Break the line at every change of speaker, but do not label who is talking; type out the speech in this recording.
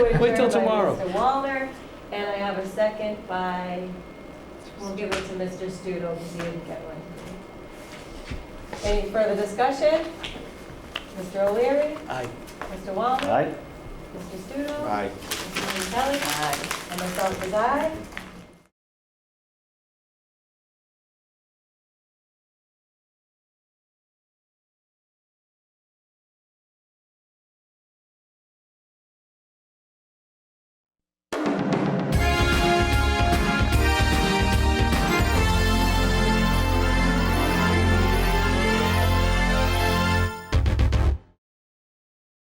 Wait till
by
tomorrow.
Mr. Walner, and I have a second by, we'll give it to Mr. Studo, because he didn't get one. Any further discussion? Mr. O'Leary,
Aye.
Mr. Walner, Mr. Studo.
Aye.
Mr. Kelly. And myself is aye.